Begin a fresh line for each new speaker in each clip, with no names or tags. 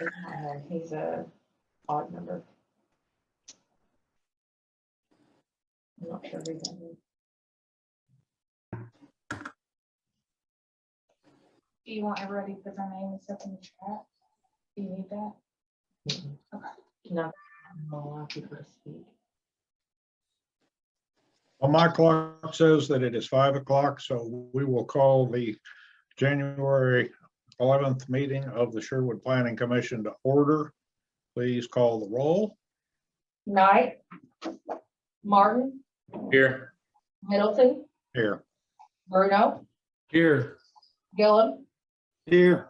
Uh, He's a odd number. I'm not sure who that is.
Do you want everybody to put their names up in the chat? Do you need that?
No, I'm not allowed people to speak.
Well, my clock says that it is five o'clock, so we will call the January eleventh meeting of the Sherwood Planning Commission to order. Please call the roll.
Knight, Martin,
Here.
Middleton,
Here,
Bruno,
Here.
Gillum,
Here.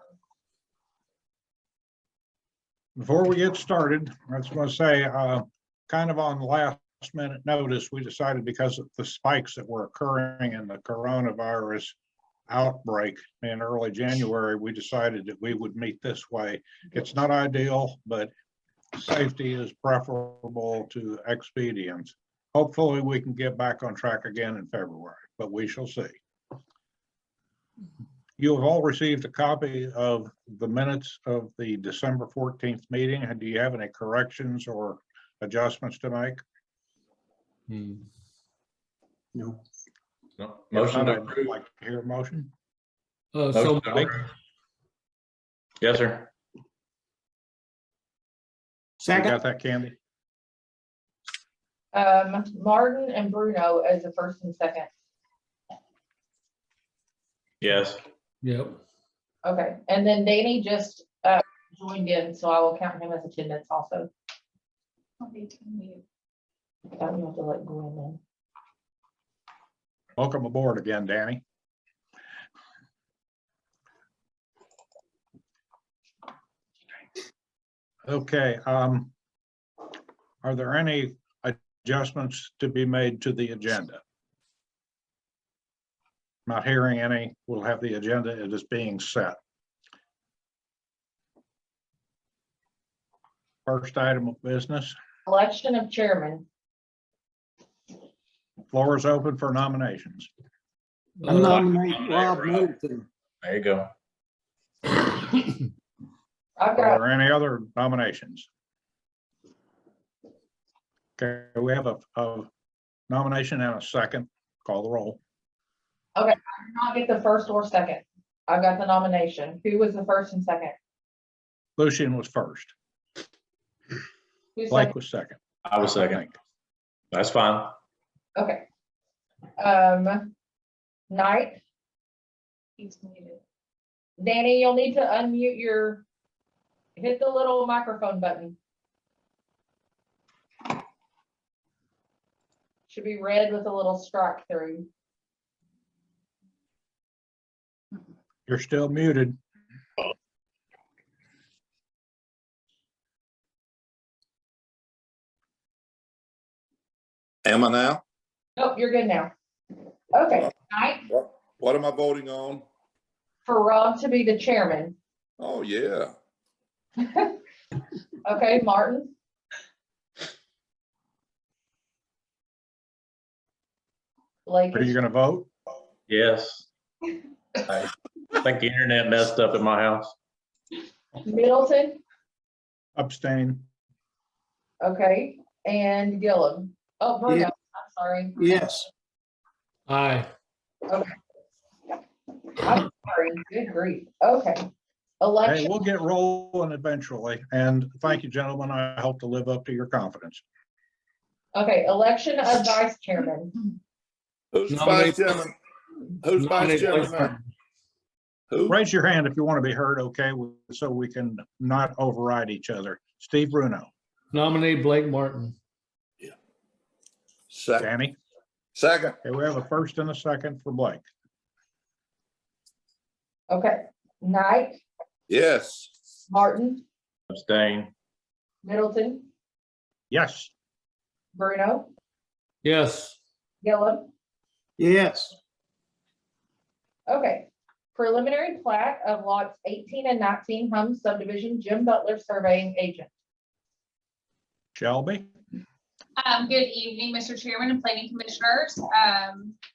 before we get started, I was gonna say, uh, kind of on last minute notice, we decided because of the spikes that were occurring in the coronavirus outbreak in early January, we decided that we would meet this way. It's not ideal, but safety is preferable to expedience. Hopefully, we can get back on track again in February, but we shall see. You have all received a copy of the minutes of the December 14th meeting. And do you have any corrections or adjustments to make?
Hmm. No.
Motion to
I'd
approve.
Like to hear a motion?
Uh,
Motion
so,
to approve. Yes, sir.
You
Second,
got that, Candy?
um, Martin and Bruno as the first and second.
Yes.
yep,
Okay, and then Danny just, uh, joined in, so I will count him as attendance also.
I'll be to mute.
I don't have to let go in then.
Welcome aboard again, Danny. Okay, um, are there any adjustments to be made to the agenda? Not hearing any, we'll have the agenda, it is being set. First item of business,
Election of chairman.
floor is open for nominations.
I
Uh,
nominate Rob Middleton.
There you go.
Uh,
I've got,
Are there any other nominations? Okay, we have a, a nomination and a second. Call the roll.
I did not get the first or second. I've got the nomination. Who was the first and second?
Lucian was first.
Who
Blake
second?
was second.
I was second. That's fine.
Okay. Um, Knight,
He's muted.
Danny, you'll need to unmute your, hit the little microphone button. Should be red with a little strike through.
You're still muted.
Am I now?
Nope, you're good now. Okay, Knight,
What am I voting on?
for Rob to be the chairman.
Oh, yeah.
Okay, Martin? Blake,
Are you
is-
gonna vote?
Yes. I think the internet messed up at my house.
Middleton?
Abstain.
Okay, and Gillum. Oh, Bruno,
Yeah.
I'm sorry,
Yes,
aye,
I'm sorry, good grief, okay.
Hey,
Election,
we'll get rolling eventually. And thank you, gentlemen. I hope to live up to your confidence.
okay, election of vice chairman.
Who's the
Nominate-
vice chairman? Who's
Nominate
vice chairman now? Who?
Raise your hand if you want to be heard, okay, so we can not override each other. Steve Bruno,
nominate Blake Martin.
Second.
Danny.
Second.
Okay, we have a first and a second for Blake.
Okay, Knight,
Yes.
Martin,
Abstain.
Middleton,
Yes.
Bruno,
Yes,
Gillum.
yes,
Okay, preliminary plat of lots eighteen and nineteen Hum subdivision, Jim Butler surveying agent.
Shelby?
Um, good evening, Mr. Chairman and Planning Commissioners. Um,